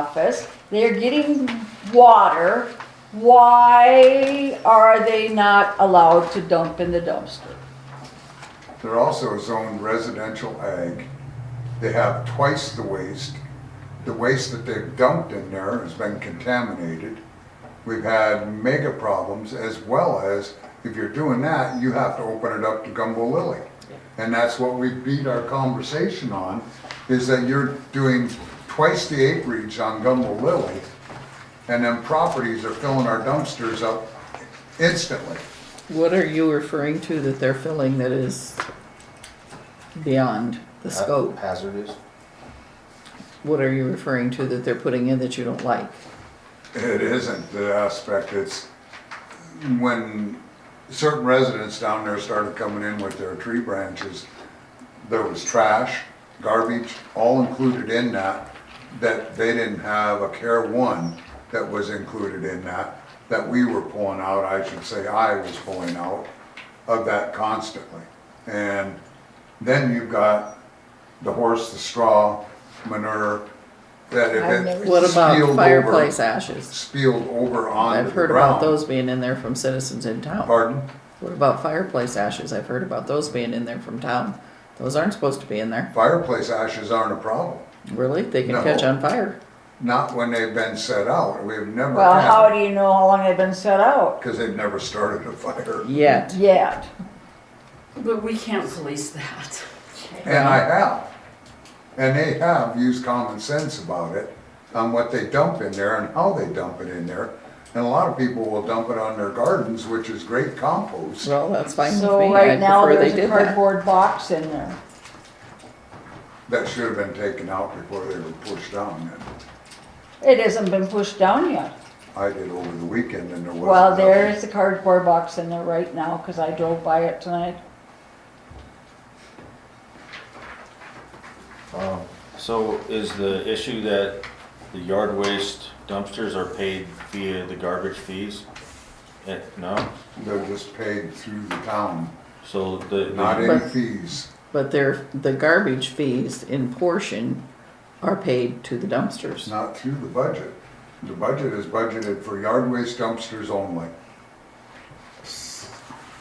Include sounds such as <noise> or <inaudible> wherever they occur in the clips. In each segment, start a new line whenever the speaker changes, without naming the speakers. office, they're getting water, why are they not allowed to dump in the dumpster?
They're also zoned residential ag. They have twice the waste. The waste that they've dumped in there has been contaminated. We've had mega problems as well as, if you're doing that, you have to open it up to Gumbo Lily. And that's what we beat our conversation on, is that you're doing twice the acreage on Gumbo Lily, and then properties are filling our dumpsters up instantly.
What are you referring to that they're filling that is beyond
Uh,
the scope?
Hazardous.
What are you referring to that they're putting in that you don't like?
It isn't the aspect, it's when certain residents down there started coming in with their tree branches, there was trash, garbage, all included in that, that they didn't have a care one that was included in that, that we were pulling out, I should say, I was pulling out of that constantly. And then you've got the horse, the straw, manure, that
I've
if
never
it.
What
spilled over-
about fireplace ashes?
spilled over onto
I've
the ground.
heard about those being in there from citizens in town.
Pardon?
What about fireplace ashes? I've heard about those being in there from town. Those aren't supposed to be in there.
Fireplace ashes aren't a problem,
Really? They can
No.
catch on fire.
not when they've been set out, we've never
Well, how
had,
do you know how long they've been set out?
because they've never started a fire.
Yet.
Yet,
But we can't police that.
And I have, and they have used common sense about it, on what they dump in there and how they dump it in there. And a lot of people will dump it on their gardens, which is great compost.
Well, that's fine with me.
so
I
right now,
prefer they
there's a
did that.
cardboard box in there.
That should have been taken out before they were pushed down, and
It hasn't been pushed down yet.
I did over the weekend and there wasn't.
Well, there
nothing.
is a cardboard box in there right now, cause I drove by it tonight.
Um,
So is the issue that the yard waste dumpsters are paid via the garbage fees? Eh, No?
They're just paid through the town.
So the,
Not
the-
any
But-
fees.
But they're, the garbage fees in portion are paid to the
It's
dumpsters.
not through the budget. The budget is budgeted for yard waste dumpsters only.
Is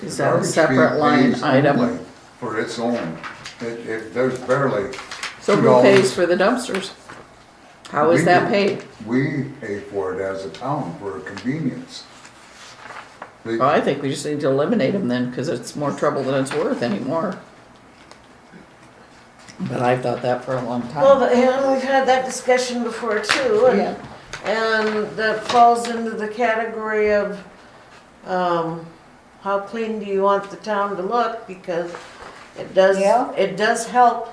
The
that a
garbage fee
separate line
pays
item?
only For its own. It, it, there's barely.
So who
$2.
pays for the dumpsters? How is
We
that
do.
paid?
We pay for it as a town for convenience. They-
Well, I think we just need to eliminate them then, cause it's more trouble than it's worth anymore. But I've thought that for a long time.
Well, but, and we've had that discussion before too,
Yeah.
and, and that falls into the category of, um, how clean do you want the town to look, because it does,
Yeah.
it does help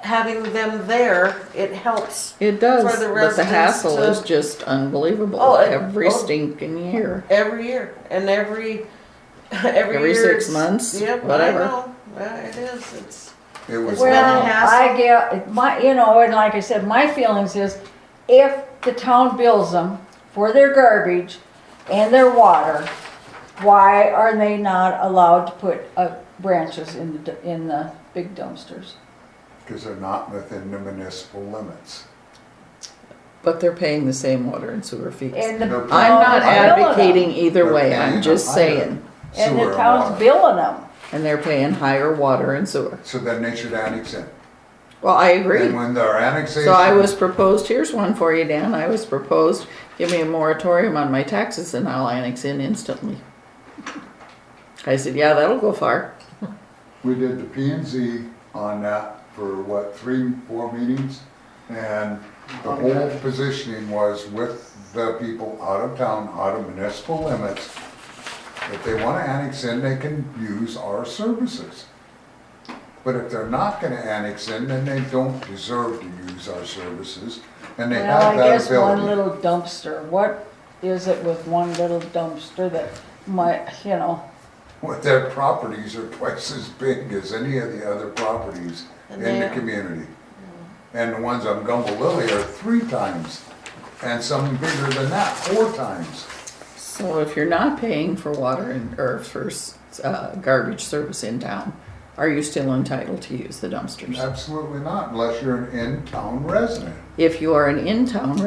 having them there, it helps
It does,
For the
but the
residents
hassle
to-
is just unbelievable
Oh, it-
every
oh.
stinking year.
every year, and every, <laughs> every year.
Every six
it's-
months,
Yep, I
whatever.
know, yeah, it is, it's,
It was,
Well-
done-
Well,
Not a hassle.
I get, my, you know, and like I said, my feelings is if the town bills them for their garbage and their water, why are they not allowed to put uh, branches in the, d- in the big dumpsters?
cause they're not within the municipal limits.
But they're paying the same water and sewer fees.
And the
No
town's
problem.
I'm not
billing 'em.
advocating either way,
They're paying
I'm just
higher
saying,
And
sewer
the town's
water.
billing them.
and they're paying higher water and sewer.
So then they should annex it.
Well, I agree.
And when they're annexation.
So I was proposed, here's one for you, Dan, I was proposed, give me a moratorium on my taxes and I'll annex in instantly. I said, yeah, that'll go far.
We did the P and Z on that for what, three, four meetings? And the whole positioning was with the people out of town, out of municipal limits. If they wanna annex in, they can use our services. But if they're not gonna annex in, then they don't deserve to use our services, and they
Well, I
have that
guess one
ability.
little dumpster, what is it with one little dumpster that might, you know?
Well, Their properties are twice as big as any of the other properties in
And
the
they're- Mm.
community. And the ones on Gumbo Lily are three times, and some bigger than that, four times.
So if you're not paying for water and, or for, s- uh, garbage service in town, are you still entitled to
Uh,
use the dumpsters?
Absolutely not, unless you're an in-town resident.
If you are an in-town